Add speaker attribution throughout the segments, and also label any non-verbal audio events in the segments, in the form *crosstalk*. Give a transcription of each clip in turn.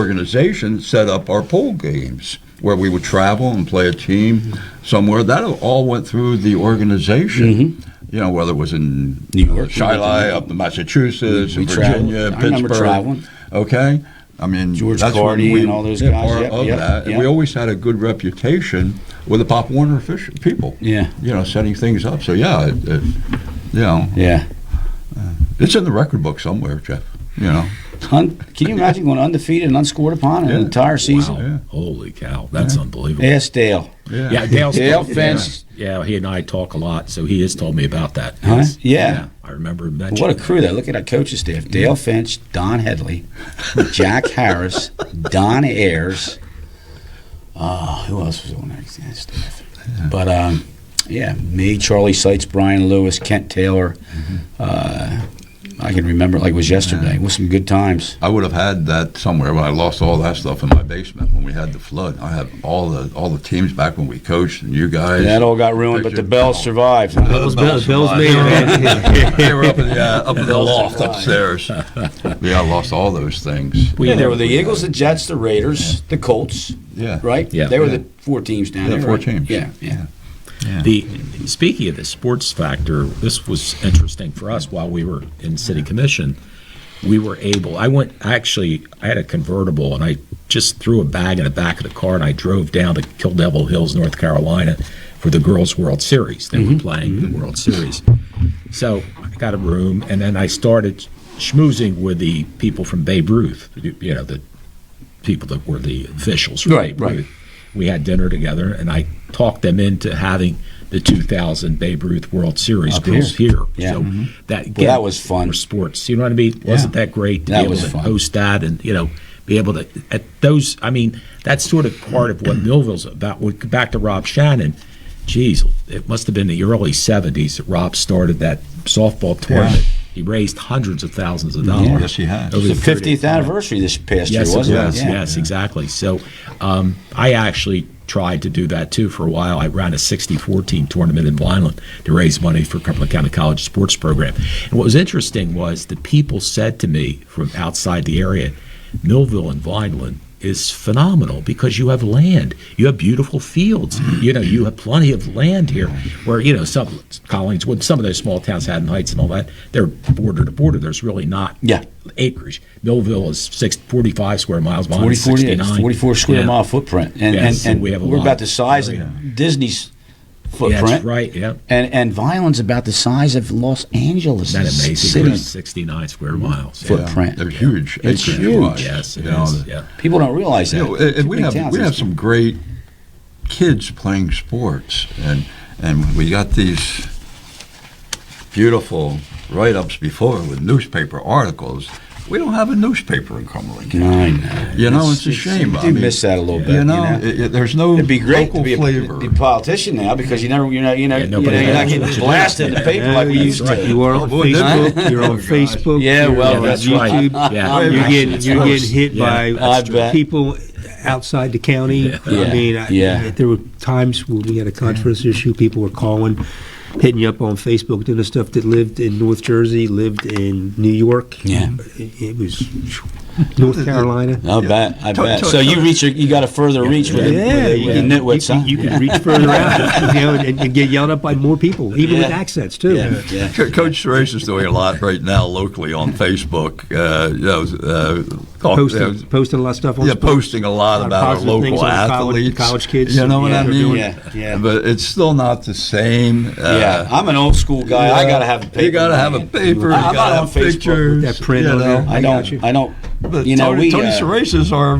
Speaker 1: organization set up our pool games where we would travel and play a team somewhere. That all went through the
Speaker 2: Mm-hmm.
Speaker 1: organization. You know, whether it was in
Speaker 2: New
Speaker 1: uh,
Speaker 2: York,
Speaker 1: Shiloh,
Speaker 2: Virginia.
Speaker 1: up in Massachusetts,
Speaker 2: We
Speaker 1: in
Speaker 2: traveled.
Speaker 1: Virginia,
Speaker 2: I
Speaker 1: Pittsburgh.
Speaker 2: remember traveling.
Speaker 1: Okay. I mean,
Speaker 2: George
Speaker 1: that's when
Speaker 2: Cardi
Speaker 1: we,
Speaker 2: and all those
Speaker 1: yeah,
Speaker 2: guys.
Speaker 1: Part
Speaker 2: Yep,
Speaker 1: of
Speaker 2: yep,
Speaker 1: that. And
Speaker 2: yep.
Speaker 1: we always had a good reputation with the Pop Warner official, people.
Speaker 2: Yeah.
Speaker 1: You know, setting things up. So yeah, it, it, you know,
Speaker 2: Yeah.
Speaker 1: it's in the record book somewhere, Jeff. You know.
Speaker 2: Un- can you imagine going undefeated and unscored upon in
Speaker 1: Yeah.
Speaker 2: an entire season?
Speaker 1: Yeah.
Speaker 3: Holy cow, that's unbelievable.
Speaker 2: Ask Dale.
Speaker 3: Yeah, Dale's
Speaker 2: Dale
Speaker 3: yeah.
Speaker 2: Fence.
Speaker 3: Yeah, he and I talk a lot, so he has told me about that.
Speaker 2: Huh?
Speaker 3: Yes.
Speaker 2: Yeah.
Speaker 3: I remember him
Speaker 2: What
Speaker 3: mentioning.
Speaker 2: a crew there. Look at our coaching staff. Dale Finch, Don Headley, *laughs* Jack Harris, Don Ayers. Uh, who else was on that staff? But um, yeah, me, Charlie Seitz, Brian Lewis, Kent Taylor. Uh, I can remember it like it was yesterday. It was some good times.
Speaker 1: I would have had that somewhere, but I lost all that stuff in my basement when we had the flood. I have all the all the teams back when we coached and you guys.
Speaker 2: that all got ruined, but the Bells survived.
Speaker 1: The
Speaker 2: huh?
Speaker 4: Bill's-
Speaker 1: bells
Speaker 4: Bill's
Speaker 1: survived.
Speaker 4: made
Speaker 3: *laughs*
Speaker 4: it.
Speaker 1: they were up in the, uh, up in the
Speaker 2: Bells
Speaker 1: loft
Speaker 2: survived.
Speaker 1: upstairs. Yeah, I lost all those things.
Speaker 3: We
Speaker 2: yeah, there
Speaker 3: never-
Speaker 2: were the Eagles, the Jets, the Raiders, the Colts,
Speaker 1: Yeah.
Speaker 2: right?
Speaker 3: Yeah.
Speaker 2: They were
Speaker 1: Yeah.
Speaker 2: the four teams down
Speaker 1: Yeah,
Speaker 2: there.
Speaker 1: four
Speaker 2: right?
Speaker 1: teams.
Speaker 2: Yeah, yeah.
Speaker 3: The speaking of the sports factor, this was interesting for us while we were in city commission. We were able. I went actually. I had a convertible, and I just threw a bag in the back of the car, and I drove down to Kill Devil Hills, North Carolina, for the Girls World Series. They
Speaker 2: Mm-hmm.
Speaker 3: were playing the World Series, so I got a room, and then I started schmoozing with the people from Babe Ruth. You you know, the people that were the officials. from
Speaker 2: Right,
Speaker 3: Babe
Speaker 2: right.
Speaker 3: Ruth. We had dinner together, and I talked them into having the 2000 Babe Ruth World Series
Speaker 2: Up
Speaker 3: girls
Speaker 2: here.
Speaker 3: here.
Speaker 2: Yeah. Mm-hmm.
Speaker 3: So that
Speaker 2: Well, that was fun.
Speaker 3: For sports, you know what I mean? Wasn't that great to
Speaker 2: That
Speaker 3: be able
Speaker 2: was
Speaker 3: to
Speaker 2: fun.
Speaker 3: host that and you know be able to at those? I mean, that's sort of part of what Millville's about. We- Back to Rob Shannon. Geez, it must have been the early 70s that Rob started that softball tournament. He raised hundreds of thousands of
Speaker 2: Mm-hmm.
Speaker 3: dollars.
Speaker 1: Yes, he has.
Speaker 3: over
Speaker 2: It
Speaker 3: the
Speaker 2: was the
Speaker 3: 30
Speaker 2: 50th anniversary this past year,
Speaker 3: Yes,
Speaker 2: wasn't
Speaker 3: it was.
Speaker 2: it? Yeah.
Speaker 3: Yes, exactly. So um, I actually tried to do that too for a while. I ran a 64 team tournament in Vineland to raise money for Cumberland County College sports program. And what was interesting was the people said to me from outside the area, Millville and Vineland is phenomenal because you have land. You have beautiful fields. You know, you have plenty of land here where, you know, some Collingswood, some of those small towns, Haddon Heights and all that, they're border to border. There's really not
Speaker 2: Yeah.
Speaker 3: acreage. Millville is six, 45 square miles. Mine
Speaker 2: 40,
Speaker 3: is
Speaker 2: 48,
Speaker 3: 69.
Speaker 2: 44 square
Speaker 3: Yeah.
Speaker 2: mile footprint. And,
Speaker 3: Yeah,
Speaker 2: and,
Speaker 3: so
Speaker 2: and
Speaker 3: we have a
Speaker 2: are
Speaker 3: lot. Oh,
Speaker 2: about the size of
Speaker 3: Yeah.
Speaker 2: Disney's
Speaker 3: Yeah,
Speaker 2: footprint.
Speaker 3: that's right. Yeah.
Speaker 2: And, and Vineland's about the size of Los Angeles
Speaker 3: Isn't that amazing?
Speaker 2: city.
Speaker 3: 69 square miles.
Speaker 2: Foot-
Speaker 3: Yeah.
Speaker 2: Print.
Speaker 1: They're huge.
Speaker 2: It's
Speaker 1: acreage
Speaker 2: huge.
Speaker 1: wise,
Speaker 3: Yes, it
Speaker 1: you know,
Speaker 3: is.
Speaker 1: the-
Speaker 3: Yeah.
Speaker 2: People don't realize that.
Speaker 1: You know, and- and we
Speaker 2: Big
Speaker 1: have
Speaker 2: towns
Speaker 1: we
Speaker 2: and
Speaker 1: have
Speaker 2: stuff.
Speaker 1: some great kids playing sports, and and we got these beautiful write-ups before with newspaper articles. We don't have a newspaper in Cumberland. County.
Speaker 2: I know.
Speaker 1: You know, it's a shame.
Speaker 2: You
Speaker 1: I
Speaker 2: do
Speaker 1: mean,
Speaker 2: miss that a little bit.
Speaker 1: You know, it- it- there's no
Speaker 2: It'd be great to
Speaker 1: local
Speaker 2: be a,
Speaker 1: flavor.
Speaker 2: be a politician now because you never, you know, you know,
Speaker 3: Yeah,
Speaker 2: you know
Speaker 3: nobody
Speaker 2: you're not
Speaker 3: knows
Speaker 2: getting
Speaker 3: what you
Speaker 2: blasted in
Speaker 3: do.
Speaker 2: the paper like we
Speaker 3: Yeah,
Speaker 2: used
Speaker 3: that's
Speaker 2: to.
Speaker 4: You are on
Speaker 1: Boy, that's-
Speaker 4: Facebook. You're on
Speaker 2: *laughs*
Speaker 4: Facebook.
Speaker 2: Yeah,
Speaker 4: you're
Speaker 2: well,
Speaker 4: on
Speaker 2: that's right. *laughs*
Speaker 4: YouTube.
Speaker 3: Yeah.
Speaker 4: You're getting
Speaker 3: It's
Speaker 4: you're
Speaker 3: worse.
Speaker 4: getting hit
Speaker 3: Yeah,
Speaker 2: I
Speaker 4: by
Speaker 2: bet.
Speaker 4: people outside the county.
Speaker 2: Yeah.
Speaker 4: I mean, I,
Speaker 2: Yeah.
Speaker 4: there were times when we had a conference issue. People were calling, hitting you up on Facebook, doing the stuff that lived in North Jersey, lived in New York.
Speaker 2: Yeah.
Speaker 4: it, it was North Carolina.
Speaker 2: I bet, I
Speaker 1: To-
Speaker 2: bet.
Speaker 1: to-
Speaker 2: So you
Speaker 1: to-
Speaker 2: reach, your, you got a further reach with,
Speaker 4: Yeah,
Speaker 2: it, with,
Speaker 4: yeah.
Speaker 2: the nitwits, huh?
Speaker 4: You can reach
Speaker 2: *laughs*
Speaker 4: further out, you know, and, and get yelled at by more people, even with
Speaker 2: Yeah.
Speaker 4: accents too.
Speaker 2: yeah, yeah.
Speaker 1: Co- Coach Therace is doing a lot right now locally on Facebook. Uh, you know, uh, talk-
Speaker 4: Posting,
Speaker 1: uh,
Speaker 4: posting a lot of stuff on
Speaker 1: yeah,
Speaker 4: sports.
Speaker 1: posting a lot
Speaker 4: lot of
Speaker 1: about our
Speaker 4: positive things
Speaker 1: local
Speaker 4: about college-
Speaker 1: athletes,
Speaker 4: college kids.
Speaker 1: You know what
Speaker 4: Yeah,
Speaker 1: I
Speaker 4: they're
Speaker 1: mean?
Speaker 4: doing
Speaker 2: it. Yeah.
Speaker 1: But it's still not the same. Uh,
Speaker 2: Yeah, I'm an old school guy. I gotta have a paper.
Speaker 1: You gotta have a
Speaker 2: man.
Speaker 1: paper.
Speaker 2: I-
Speaker 1: you
Speaker 2: I'm
Speaker 1: gotta
Speaker 2: not on
Speaker 1: have
Speaker 2: Facebook with
Speaker 1: pictures.
Speaker 4: that print
Speaker 1: you
Speaker 4: on there.
Speaker 1: know.
Speaker 2: I
Speaker 4: I
Speaker 2: don't.
Speaker 4: got you.
Speaker 2: I don't.
Speaker 1: But
Speaker 2: you know,
Speaker 1: Tony,
Speaker 2: we.
Speaker 1: Tony
Speaker 2: uh,
Speaker 1: Cerise is our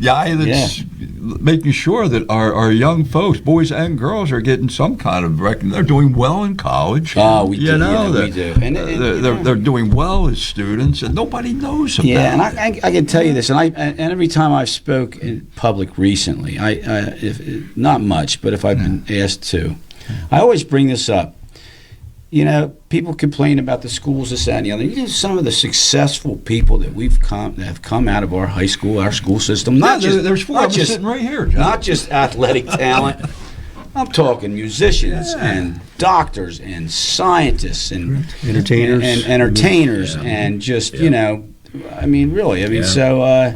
Speaker 1: guy that's making sure that our, our young folks, boys and girls, are getting some kind of recognition. They're doing well in college.
Speaker 2: Oh, we
Speaker 1: you
Speaker 2: do,
Speaker 1: Know,
Speaker 2: yeah, we
Speaker 1: they're-
Speaker 2: do. And- and-
Speaker 1: they're, they're, they're doing well as students, and nobody knows about
Speaker 2: yeah, and I,
Speaker 1: it.
Speaker 2: I, I can tell you this, and I and every time I've spoke in public recently, I, I if not much, but if I've been asked to, I always bring this up. You know, people complain about the schools, this, that, and the other. You know, some of the successful people that we've come that have come out of our high school, our school system. Not
Speaker 1: Yeah,
Speaker 2: just
Speaker 1: there- there's four
Speaker 2: not
Speaker 1: of them
Speaker 2: just-
Speaker 1: sitting right here, John.
Speaker 2: Not just
Speaker 3: *laughs*
Speaker 2: athletic talent. I'm talking musicians and doctors and scientists and
Speaker 4: Entertainers.
Speaker 2: and, and entertainers
Speaker 3: Yeah.
Speaker 2: and just you know, I mean, really, I mean, so uh,